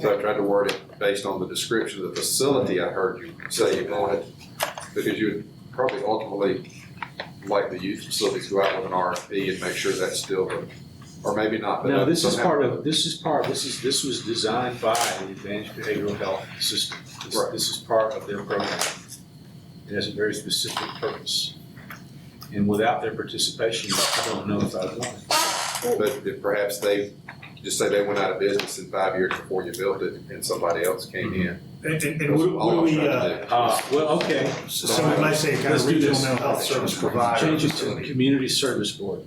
So I tried to word it based on the description of the facility I heard you say you wanted, because you would probably ultimately like the youth facility to go out with an RFP and make sure that's still, the- or maybe not. but No, this is somehow- part of, this is part, this is, this was designed by the Advanced Behavioral Health System. This, Right. this is part of their program. It has a very specific purpose. And without their participation, I don't know if I'd want it. But if perhaps they, just say they went out of business in five years before you built it and somebody else came in. And, and, and That's would, all I would was we, trying to uh, do. Uh, well, okay, so we might say kind Let's of do regional this. mental health service provider. change it to Community Service Board.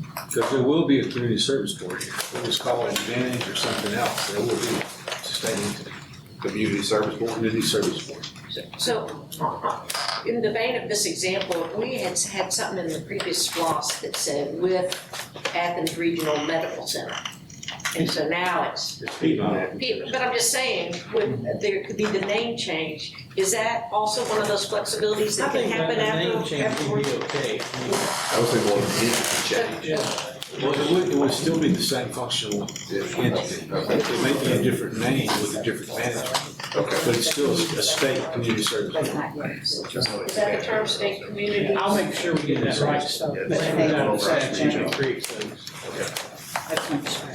Because there will be a Community Service Board here. We'll just call it Advantage or something else. There will be a state Community service board, Community Service Board. So, in the vein of this example, we had had something in the previous SLOSS that said with Athens Regional Medical Center. And so now it's, It's Piedmont. but I'm just saying, with, there could be the name change. Is that also one of those flexibilities I that can think that happen name after? change after would we- be okay. I would say more than entity change. Well, it would, it would still be the same functional entity. Okay, It may be a different name with a different management, okay. but it's still a state community service. Is that the term state community? I'll make sure we get that right stuff. Yeah, But that's- we don't decide Channel Creek, so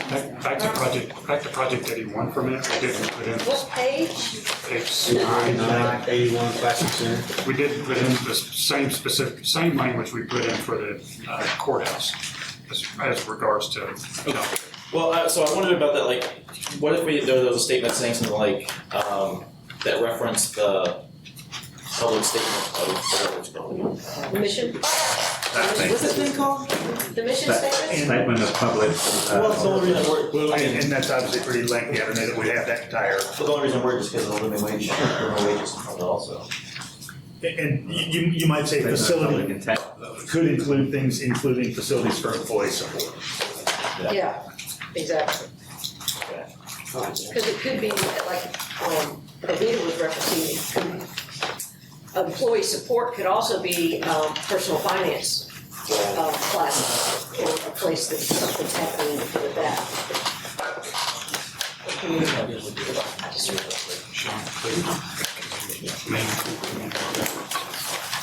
Back, back to project, back to project eighty-one for a minute, we didn't put in What page? page nine. Nine eighty-one Classic Center. We did put in the same specific, same language we put in for the uh, courthouse as, as regards to, you know, Well, I, so I wondered about that. Like, what if we there was a statement saying something like um, that referenced the public statement of whatever it's called. Mission, that thing. what's this thing called? the mission statement? Statement of public. uh, Well, it's the only reason I work. Well, and, and that's obviously pretty lengthy, I mean, that we have that entire, But the only reason I work is because of the living wage, minimum wages, and all that also. and- and you, you might say statement of public facility intent. could include things, including facilities for employee support. Yeah, exactly. Okay. Because it could be that, like, um, Anita was referencing, it could- employee support could also be, um, personal finance, um, classes, or a place that something's happening with that.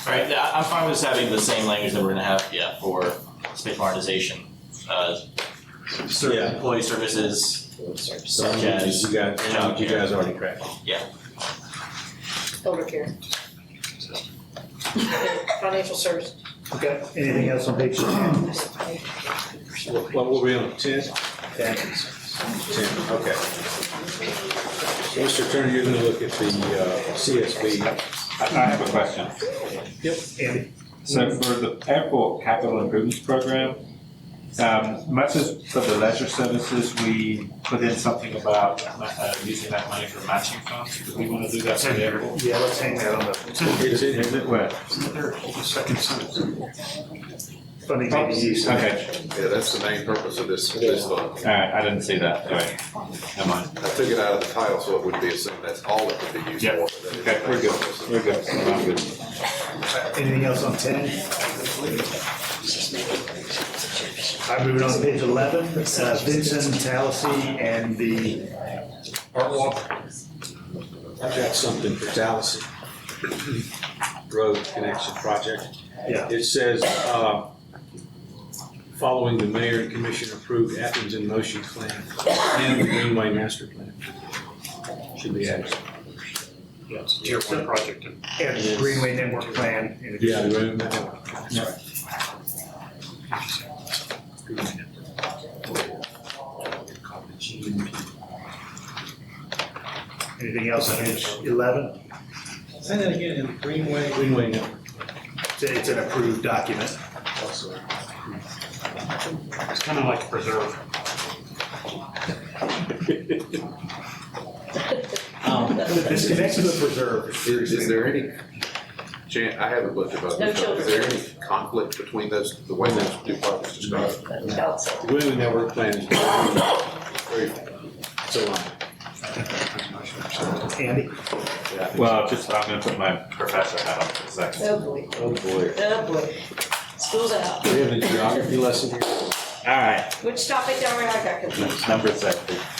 All right, yeah, I'm fine with just having the same language that we're gonna have, yeah, for space modernization, uh, ser- Yeah. employee services, So such you as, guys, you guys already cracked. Elder care. Financial service. Oh, Okay, anything else on page ten? What, what were we on, ten? Ten. okay. Mr. Turner, you're gonna look at the uh, CSB. I I have a question. Andy? So for the airport capital improvements program, um, much as for the leisure services, we put in something about uh, using that money for matching funds. Do we want to do that for the airport? Yeah, let's hang that on the, It's in here. Is it where? the second sentence. Funding may be used. Okay, Yeah, that's the main purpose of this, this fund. all right, I didn't see that, sorry. Never mind. I took it out of the title, so it would be assumed that's all it could be used Yeah. for. but that is the Okay, we're main good, purpose of we're good. I'm good. Anything else on ten? I'm moving on to page eleven, uh, Vincent, Talisi, and the art walk. I've got something for Dallas Road Connection Project. Yeah. It says, uh, following the mayor and commission approved Athens in motion plan and the Greenway master plan. Should be added. Tier one project. And Greenway Network Plan. in Yeah, addition. the Greenway network. That's right. Anything else on page eleven? Say that again, in Greenway. Greenway network. It's, a- it's an approved document. It's kind of like preserve. um, This connects to the preserve. Is, is there any, Jan, I haven't looked about No this, is children. there any conflict between those, the way those two projects described? The Greenway network plan is very, it's a line. Andy? Well, just, I'm going to put my professor hat on for a second. Oh, boy. Oh, boy. Oh, boy. School's out. We have a geography lesson here. All right, Which topic are we on? I got confused. number six.